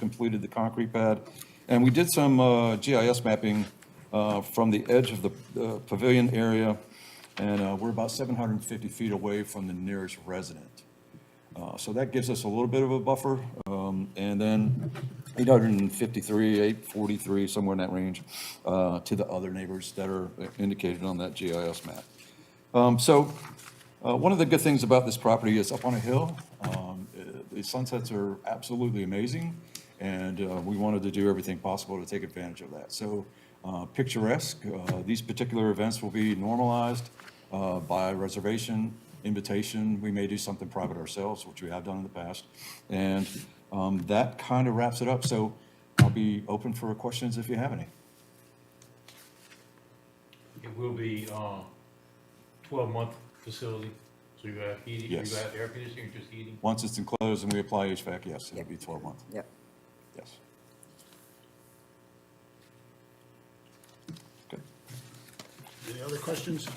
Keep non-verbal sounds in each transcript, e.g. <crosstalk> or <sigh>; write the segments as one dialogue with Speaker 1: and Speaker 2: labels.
Speaker 1: completed the concrete pad. And we did some uh, GIS mapping uh, from the edge of the uh, pavilion area, and uh, we're about 750 feet away from the nearest resident. Uh, So that gives us a little bit of a buffer, um, and then 853, 843, somewhere in that range, uh, to the other neighbors that are indicated on that GIS map. Um, So uh, one of the good things about this property is up on a hill. Um, uh, The sunsets are absolutely amazing, and uh, we wanted to do everything possible to take advantage of that. So uh, picturesque, uh, these particular events will be normalized uh, by reservation, invitation. We may do something private ourselves, which we have done in the past. And um, that kind of wraps it up, so I'll be open for questions if you have any.
Speaker 2: It will be, um, twelve-month facility, so you have heating, you
Speaker 1: Yes.
Speaker 2: have air conditioning, or just heating?
Speaker 1: Once it's enclosed and we apply HVAC, yes, it'll be 12 months,
Speaker 3: Yep.
Speaker 1: yes. Okay.
Speaker 4: Any other questions?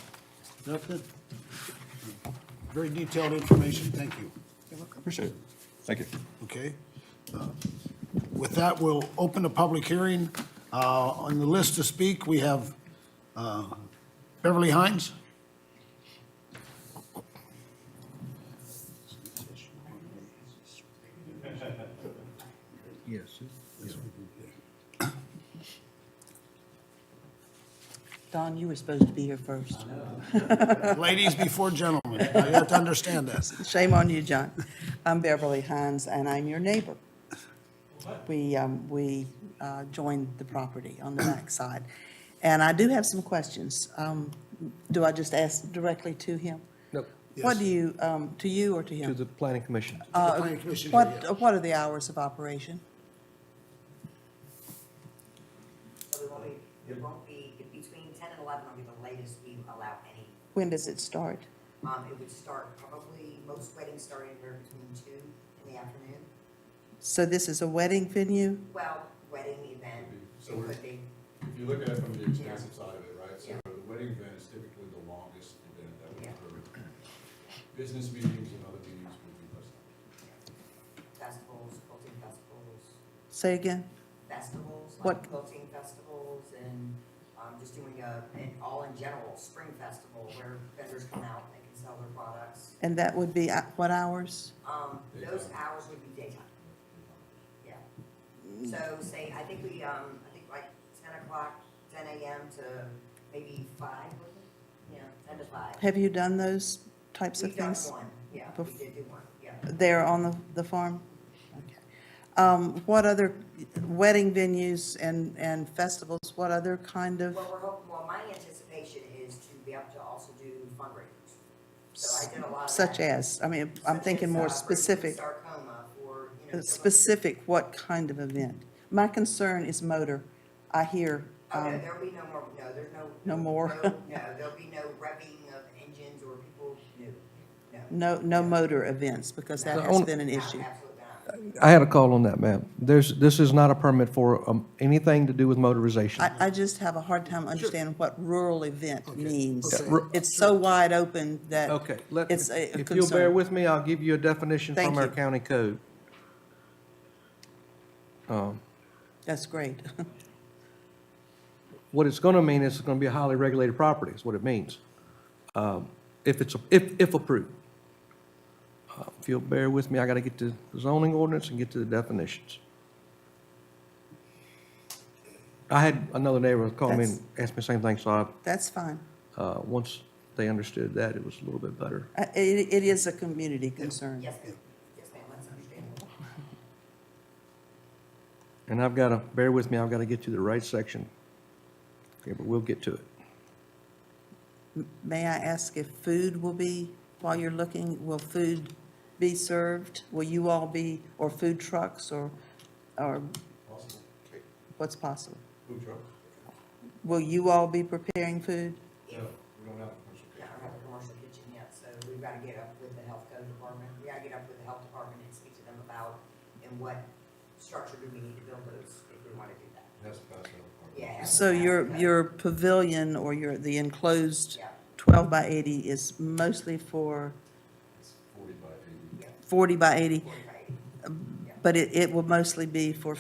Speaker 4: Nothing? Very detailed information, thank you.
Speaker 1: Appreciate it. Thank you.
Speaker 4: Okay. Uh, With that, we'll open the public hearing. Uh, On the list to speak, we have uh, Beverly Hines.
Speaker 5: Yes.
Speaker 3: Don, you were supposed to be here first.
Speaker 4: Ladies before gentlemen, I have to understand that.
Speaker 3: Shame on you, John. I'm Beverly Hines, and I'm your neighbor. We, um, we uh, joined the property on the back side, And I do have some questions. Um, Do I just ask directly to him?
Speaker 5: No,
Speaker 3: What
Speaker 4: Yes.
Speaker 3: do you, um, to you or to
Speaker 5: to
Speaker 3: him?
Speaker 5: the planning commission.
Speaker 4: The planning commission here, yeah.
Speaker 3: What, what are the hours of operation?
Speaker 6: So it won't be, it won't be, between ten and eleven will be the latest we allow any.
Speaker 3: When does it start?
Speaker 6: Um, it would start probably, most weddings start anywhere between two in the afternoon.
Speaker 3: So this is a wedding venue?
Speaker 6: Well, wedding event,
Speaker 7: So
Speaker 6: it
Speaker 7: we're-
Speaker 6: could be,
Speaker 7: If you look at it from the expensive side of it, right, so the wedding event is typically the longest event that we
Speaker 6: Yeah.
Speaker 7: occur. Business meetings and other meetings would be less.
Speaker 6: festivals, quilting festivals,
Speaker 3: Say again?
Speaker 6: festivals,
Speaker 3: What-
Speaker 6: like quilting festivals and, um, just doing a, and all in general, spring festival where vendors come out and they can sell their products.
Speaker 3: And that would be at what hours?
Speaker 6: Um, those
Speaker 7: Daytime.
Speaker 6: hours would be daytime. Yeah.
Speaker 3: Mm.
Speaker 6: So say, I think we, um, I think like ten o'clock, ten AM to maybe five, was it? Yeah, ten to five.
Speaker 3: Have you done those types of
Speaker 6: We've done
Speaker 3: things?
Speaker 6: one, yeah, we
Speaker 3: Bef-
Speaker 6: did do one, yeah.
Speaker 3: There on the, the farm? Okay. Um, What other wedding venues and, and festivals, what other kind of,
Speaker 6: What we're hoping, well, my anticipation is to be able to also do fundraisers. So I did a lot of
Speaker 3: such
Speaker 6: that.
Speaker 3: as, I mean, I'm
Speaker 6: Such
Speaker 3: thinking
Speaker 6: as, uh,
Speaker 3: more
Speaker 6: breast
Speaker 3: specific,
Speaker 6: Sarcoma for, you know.
Speaker 3: uh,
Speaker 6: someone-
Speaker 3: specific, what kind of event? My concern is motor. I hear,
Speaker 6: Oh, no,
Speaker 3: um,
Speaker 6: there'll be no more, no, there's no.
Speaker 3: No more. <laughs>
Speaker 6: No, no, there'll be no revving of engines or people, no, no.
Speaker 3: no, no motor events, because that
Speaker 5: The
Speaker 3: has
Speaker 5: only-
Speaker 3: been an
Speaker 6: Ab-
Speaker 3: issue.
Speaker 6: Absolutely not.
Speaker 5: I had a call on that, ma'am. There's, this is not a permit for um, anything to do with motorization.
Speaker 3: I, I just have a hard time understanding what rural event means.
Speaker 4: okay. Yeah, ru-
Speaker 3: It's so wide open that
Speaker 5: Okay, let,
Speaker 3: it's a a
Speaker 5: if you'll bear
Speaker 3: concern.
Speaker 5: with me, I'll give you a definition
Speaker 3: Thank
Speaker 5: from our
Speaker 3: you.
Speaker 5: county code.
Speaker 3: That's great. <laughs>
Speaker 5: What it's going to mean is it's going to be a highly regulated property, is what it means. Um, If it's, if, if approved. Uh, If you'll bear with me, I got to get to the zoning ordinance and get to the definitions. I had another neighbor call me and ask me the same thing, so I
Speaker 3: That's fine.
Speaker 5: Uh, Once they understood that, it was a little bit better.
Speaker 3: Uh, It, it is a community concern.
Speaker 6: Yes, ma'am. yes, ma'am, that's understandable.
Speaker 5: And I've got to, bear with me, I've got to get to the right section. Okay, but we'll get to it.
Speaker 3: May I ask if food will be, while you're looking, will food be served? Will you all be, or food trucks, or, or
Speaker 7: Possible.
Speaker 3: what's possible?
Speaker 7: Food trucks?
Speaker 3: Will you all be preparing food?
Speaker 7: No, we don't have a commercial
Speaker 6: Yeah, I
Speaker 7: kitchen.
Speaker 6: don't have a commercial kitchen yet, so we've gotta get up with the health code department, we gotta get up with the health department and speak to them about, and what structure do we need to build those, if we wanna do that.
Speaker 7: That's a pass out.
Speaker 6: Yeah.
Speaker 3: So your, your pavilion or your, the enclosed
Speaker 6: Yeah.
Speaker 3: 12 by 80 is mostly for
Speaker 7: It's forty by eighty.
Speaker 6: Yeah,
Speaker 3: 40 by 80,
Speaker 6: forty by eighty, yeah.
Speaker 3: But it, it will mostly be for